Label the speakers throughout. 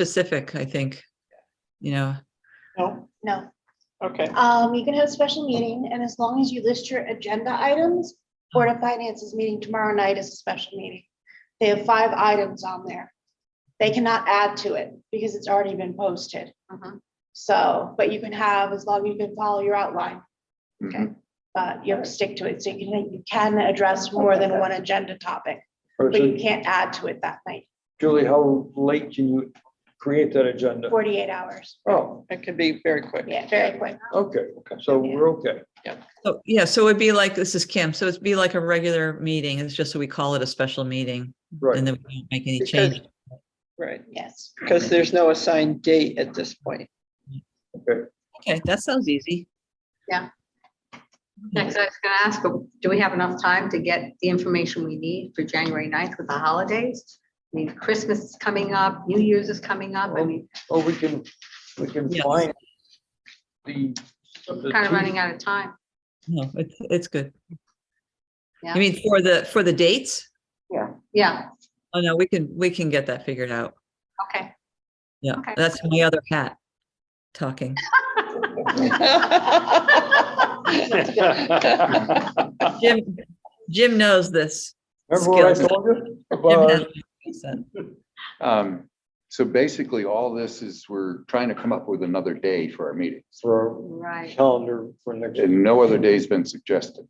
Speaker 1: specific, I think. You know,
Speaker 2: No,
Speaker 3: No,
Speaker 2: Oh, okay,
Speaker 3: um, you can have a special meeting and as long as you list your agenda items, Board of Finance's meeting tomorrow night is a special meeting. They have five items on there. They cannot add to it because it's already been posted. So, but you can have, as long as you can follow your outline,
Speaker 4: Mhm.
Speaker 3: but you have to stick to it. So you can, you can address more than one agenda topic,
Speaker 5: Or
Speaker 3: but you
Speaker 5: so,
Speaker 3: can't add to it that night,
Speaker 5: Julie, how late can you create that agenda?
Speaker 3: forty-eight hours.
Speaker 5: Oh,
Speaker 2: it can be very quick.
Speaker 3: Yeah, very quick.
Speaker 5: okay, so we're okay.
Speaker 1: so, yeah, so it'd be like, this is Kim, so it'd be like a regular meeting, it's just so we call it a special meeting.
Speaker 5: Right,
Speaker 1: And then we don't make any
Speaker 2: Because-
Speaker 1: change.
Speaker 2: Right,
Speaker 3: Yes.
Speaker 2: because there's no assigned date at this point.
Speaker 1: Okay, that sounds easy.
Speaker 6: Next, I was gonna ask, but do we have enough time to get the information we need for January 9th with the holidays? I mean, Christmas is coming up, New Year's is coming up,
Speaker 2: Oh,
Speaker 6: I mean,
Speaker 5: well, Oh, we can, we can
Speaker 1: Yes.
Speaker 5: find the. the
Speaker 6: kind of
Speaker 5: two-
Speaker 6: running out of time.
Speaker 1: No, it's, it's good.
Speaker 6: Yeah.
Speaker 1: I mean, for the, for the dates?
Speaker 6: Yeah,
Speaker 1: Oh, no, we can, we can get that figured out.
Speaker 6: okay.
Speaker 1: Yeah,
Speaker 6: Okay.
Speaker 1: that's my other hat talking. Jim, Jim knows this.
Speaker 5: Remember what I
Speaker 1: Skills.
Speaker 5: told you?
Speaker 1: Jim
Speaker 5: About
Speaker 1: knows this.
Speaker 4: Um, So basically, all this is we're trying to come up with another day for our meetings.
Speaker 5: for our
Speaker 6: Right,
Speaker 5: calendar for next,
Speaker 4: And no other day's been suggested.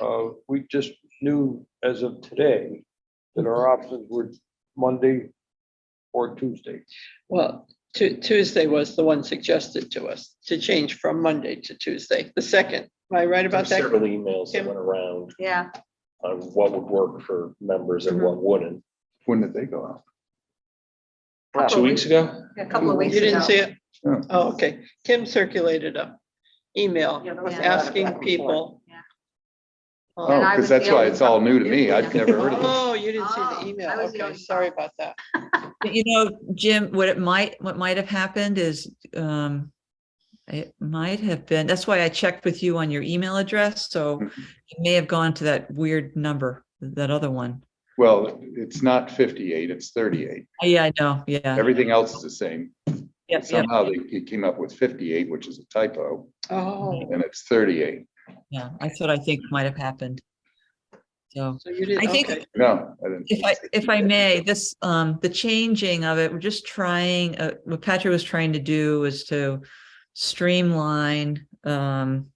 Speaker 5: uh, we just knew as of today that our options were Monday or Tuesday.
Speaker 2: Well, Tu- Tuesday was the one suggested to us to change from Monday to Tuesday, the second. Am I right about
Speaker 7: There's
Speaker 2: that?
Speaker 7: Several emails that
Speaker 2: Kim?
Speaker 7: went around
Speaker 6: yeah,
Speaker 7: on what would work for members and what wouldn't.
Speaker 4: When did they go out?
Speaker 7: Two weeks ago?
Speaker 5: Uh,
Speaker 6: a couple of
Speaker 2: You
Speaker 6: weeks
Speaker 2: didn't see
Speaker 6: ago.
Speaker 2: it?
Speaker 4: Yeah.
Speaker 2: Oh, okay. Kim circulated a email asking people.
Speaker 6: Yeah.
Speaker 2: um,
Speaker 4: Oh,
Speaker 6: I
Speaker 4: because
Speaker 6: was
Speaker 4: that's
Speaker 6: the
Speaker 4: why
Speaker 6: only
Speaker 4: it's all
Speaker 6: one.
Speaker 4: new to Oh, me.
Speaker 6: Yeah.
Speaker 4: I've never heard of it.
Speaker 2: Oh, you didn't see the
Speaker 6: Oh,
Speaker 2: email.
Speaker 6: I was the
Speaker 2: Okay,
Speaker 6: only
Speaker 2: sorry
Speaker 6: one.
Speaker 2: about that.
Speaker 1: But You know, Jim, what it might, what might have happened is, um, it might have been, that's why I checked with you on your email address, so
Speaker 4: Mhm.
Speaker 1: it may have gone to that weird number, that other one.
Speaker 4: Well, it's not fifty-eight, it's thirty-eight.
Speaker 1: Oh, Yeah, I know, yeah.
Speaker 4: Everything else is the same.
Speaker 1: Yep, yep.
Speaker 4: Somehow they they came up with fifty-eight, which is a typo,
Speaker 2: Oh,
Speaker 4: and it's thirty-eight.
Speaker 1: Yeah, that's what I think might have happened. So
Speaker 2: so you
Speaker 1: I
Speaker 2: didn't,
Speaker 1: think-
Speaker 2: okay.
Speaker 4: No, I didn't.
Speaker 1: if I, if I may, this, um, the changing of it, we're just trying, uh, what Patrick was trying to do is to streamline, um,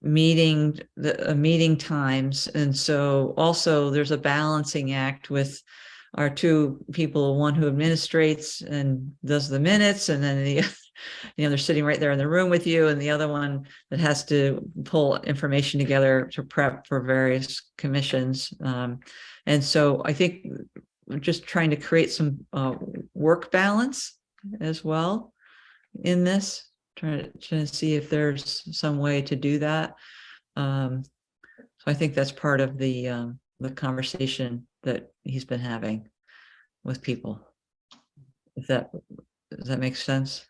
Speaker 1: meeting, the, uh, meeting times. And so also there's a balancing act with our two people, one who administrates and does the minutes and then the, you know, they're sitting right there in the room with you and the other one that has to pull information together to prep for various commissions. Um, and so I think we're just trying to create some uh, work balance as well in this, trying to see if there's some way to do that. Um, So I think that's part of the, um, the conversation that he's been having with people. If that, does that make sense?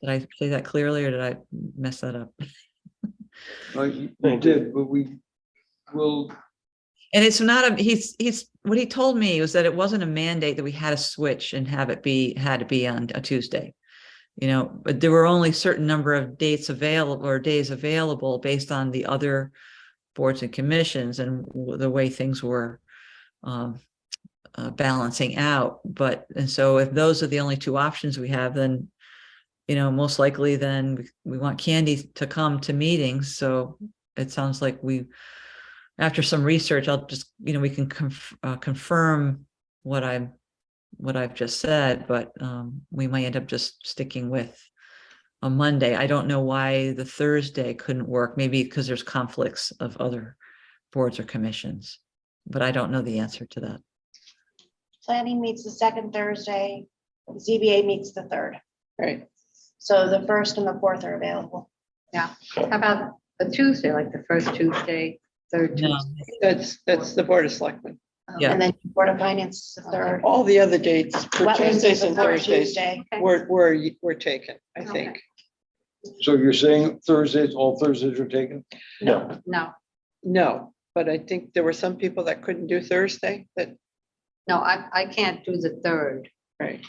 Speaker 1: Did I say that clearly or did I mess that up?
Speaker 5: No, you you did, but we will
Speaker 1: And it's not a, he's, he's, what he told me was that it wasn't a mandate that we had to switch and have it be, had to be on a Tuesday. You know, but there were only certain number of dates available or days available based on the other boards and commissions and w- the way things were um, uh, balancing out. But, and so if those are the only two options we have, then, you know, most likely then we- we want Candy to come to meetings. So it sounds like we after some research, I'll just, you know, we can conf- uh, confirm what I'm, what I've just said, but um, we might end up just sticking with a Monday. I don't know why the Thursday couldn't work, maybe because there's conflicts of other boards or commissions. But I don't know the answer to that.
Speaker 3: Planning meets the second Thursday, ZBA meets the third.
Speaker 2: Right.
Speaker 3: So the first and the fourth are available.
Speaker 6: How about the Tuesday, like the first Tuesday, third
Speaker 1: No,
Speaker 6: Tuesday?
Speaker 2: That's, that's the Board of Selectmen.
Speaker 1: Yeah.
Speaker 3: And then Board of Finance is the third.
Speaker 2: All the other dates for
Speaker 3: Wetlands is
Speaker 2: Tuesdays
Speaker 3: the
Speaker 2: and
Speaker 3: third
Speaker 2: Thursdays
Speaker 3: Tuesday.
Speaker 6: Okay.
Speaker 2: were, were, were taken, I
Speaker 6: Okay.
Speaker 2: think.
Speaker 5: So you're saying Thursdays, all Thursdays are taken?
Speaker 7: No.
Speaker 6: No,
Speaker 2: No, but I think there were some people that couldn't do Thursday that,
Speaker 6: no, I, I can't do the third.
Speaker 4: right.